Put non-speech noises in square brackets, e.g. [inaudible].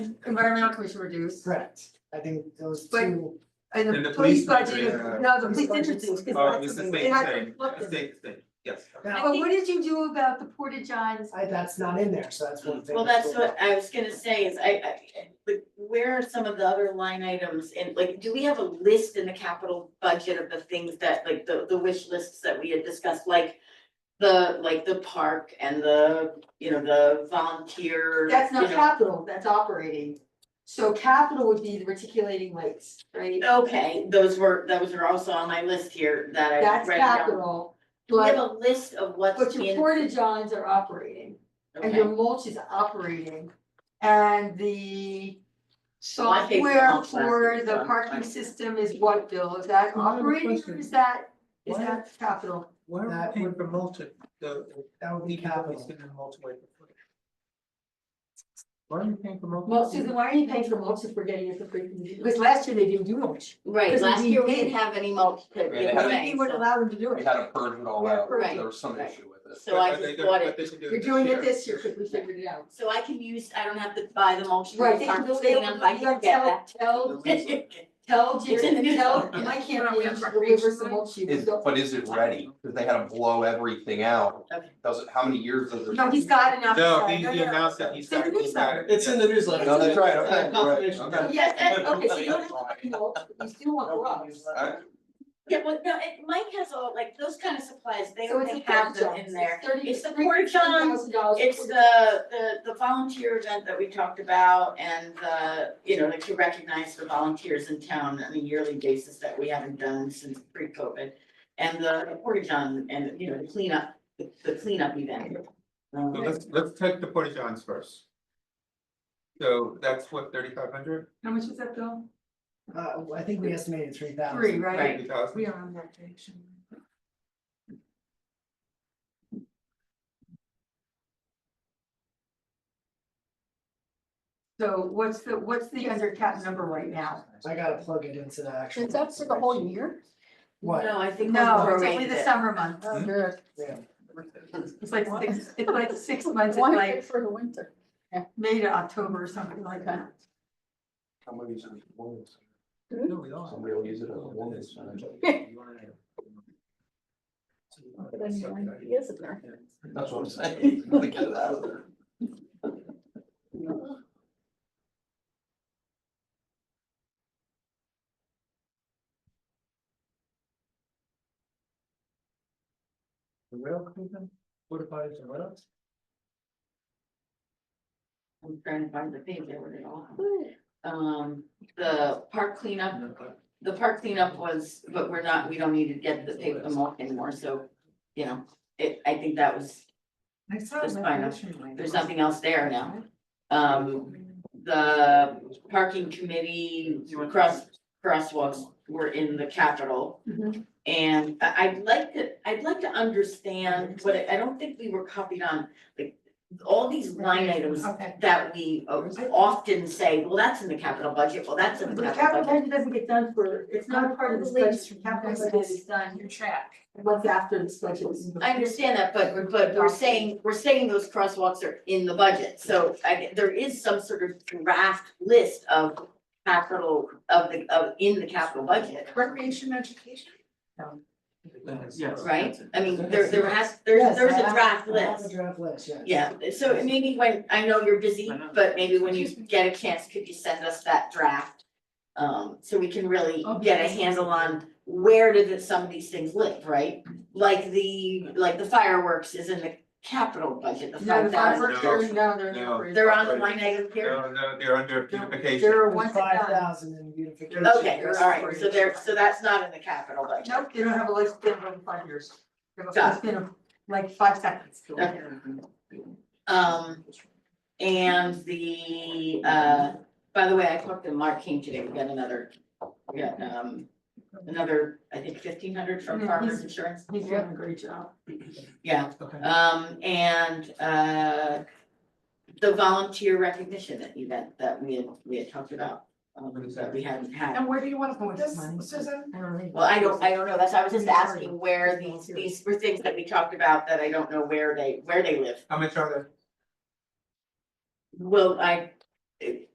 environmental commission reduced. Correct, I think those But- two, And And the the police police budget, budget, is- uh, no, the police Police budget budget is- is, because Oh, that's it's the the thing, same it has thing, looked at it. same thing, yes. now, But what did you do about the Porta Johns? I, that's not in there, so that's one thing. Well, that's what I was gonna say is I, I, but where are some of the other line items and like, do we have a list in the capital budget of the things that, like, the, the wish lists that we had discussed, like. The, like the park and the, you know, the volunteer, That's you not know. capital, that's operating. So capital would be the reticulating lights, right? Okay, those were, those are also on my list here that I That's read down. capital, Do we have but a list of what's but in? your Porta Johns are operating and Okay. your mulch is operating. And the Well, I paid for software mulch last for year, the so parking I'm- system is what, Bill? Is that I have a operating or question. is that, is Why- that capital? Why are That we paying would- for multi, the, That would we be have capital. always been in multi-way for free? Why are we paying for multi? Well, Susan, why are you paying for mulch if we're getting it for free? Because last year they didn't do mulch. Right, Because last we year we did- didn't have any mulch to give Right, they had- away, We wouldn't so, allow them to do We it. had to purge it all out, Right, there was some right. issue with it. so I just bought it. You're doing it this year because we figured it out. So I can use, I don't have to buy the mulch. Right, they from can, the farm they stand, don't, I you can don't get tell, that. tell, [laughs] tell It's in Jerry, the news. tell, Yeah. Why my don't we have campaign to recreation deliver some money? mulch. you Is, don't- but is it ready? Cause they had to blow everything out. Okay. Does it, how many years does it? No, he's got enough. No, to he say. he announced that he's It's in the got, he's got newsletter. it. It's in the newsletter. No, that's right, okay, Uh, confirmation. right, [laughs] okay. Yes, that- okay, so you don't have [laughs] to mulch, but you still That would want gloves. be useful. Alright. Yeah, well, no, it, Mike has all, like, those kind of supplies, they So it's they a have them porta-john. in there. It's thirty- It's the three- porta-john, $30,000 It's the, the, the volunteer event that we talked about and the, you know, like to recognize the volunteers in town on a yearly basis that we haven't done since pre-COVID. And the porta-john and, you know, the cleanup, the the cleanup event. Um, So let's, let's take the porta johns first. So that's what, thirty-five hundred, How much was that, Bill? Uh, I think we estimated three thousand. Three, right? Right. thirty thousand? We are on vacation. So what's the, what's the under cap number right now? I gotta plug it into the actual. Is that for the whole year? What? No, I think. No, we'll it's prorate only the it. summer months. Yeah. It's like six, it's like six months, it's Why like is it for the winter? May to October or something like that. How many years is it? Always. No, we are. Somebody will use it as a woman's sign. [laughs] Then you're like, yes, it's there. That's what I'm saying, [laughs] gotta get it out of there. The rail cleaning, porta potties and what else? I'm trying to find the page, I wrote it all. down. Um, the park cleanup, the park cleanup was, but we're not, we don't need to get the paper mulch anymore, so, you know, it, I think that was, I saw That's that fine. mentioned. there's nothing else there now. Um, the parking committee cross, crosswalks were in the capital. Mhm. And I, I'd like to, I'd like to understand, but I- I don't think we were copied on, like, all these line items Okay. that we uh, often say, well, that's in the capital budget, well, that's in But the the capital capital budget. budget doesn't get done for, it's not part of the budget, capital budget is done Your track. once after the budget is. I understand that, but we're, but we're saying, we're saying those crosswalks are in the budget, so I, there is some sort of draft list of capital, of the, of, in the capital budget, Recreation education? Yes. right? I mean, there, there has, there's, Yes, there's I a have- draft I have a list. draft list, yes. Yeah, so maybe when, I know you're busy, but maybe when you get a chance, could you send us that draft? Um, so we can really Oh, get a handle on where did it- some of these things live, right? Like the, like the fireworks is in the capital budget, the No, the five thousand. fireworks, they're, no, they're not. They're on the line item here? No, no, they're under beautification, They're once and Five done. thousand in beautification. Okay, all right, so there, so that's not in the capital budget. Nope, they don't have a lifespan of five years. They have a Got lifespan of like five seconds. Okay. Um, and the, uh, by the way, I talked to Mark King today, we got another, we got, um, another, I think fifteen hundred from Yeah, Farmers he's- Insurance, He's doing a great job. yeah. Okay. Um, and, uh, the volunteer recognition event that we had, we had talked about, um, What is that? that we hadn't had. And where do you want to put this this, money? Susan? Well, I don't, I don't know, that's, I was just Sorry. asking where these, these were things that we talked about that I don't know where they, where they live. how much are there? Well, I,